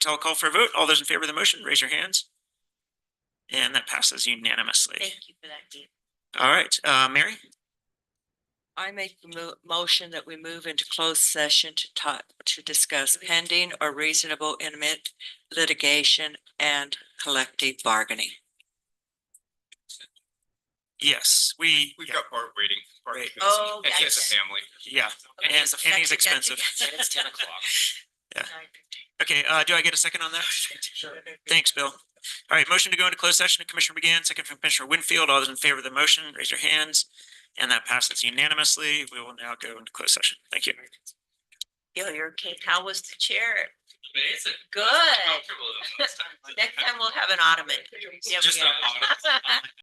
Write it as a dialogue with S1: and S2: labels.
S1: I'll call for a vote. All those in favor of the motion, raise your hands. And that passes unanimously.
S2: Thank you for that, Dean.
S1: All right, uh, Mary,
S2: I make a mo- motion that we move into closed session to talk, to discuss pending or reasonable intimate litigation and collective bargaining.
S1: yes, we,
S3: We've
S1: yeah,
S3: got Bart waiting. Bart
S1: Right.
S3: is-
S2: Oh,
S3: And he has a
S2: gotcha.
S3: family.
S1: yeah, and he's, and he's expensive.
S2: It's ten
S3: o'clock.
S1: Okay, uh, do I get a second on that? Thanks, Bill. All right, motion to go into closed session, Commissioner McGann, second from Commissioner Winfield. All those in favor of the motion, raise your hands. And that passes unanimously. We will now go into closed session. Thank you.
S2: Yo, you're okay. How was the chair?
S3: Amazing.
S2: Good.
S3: Comfortable than last time.
S2: Next time we'll have an ottoman. Yeah, we
S3: Just an
S2: got it.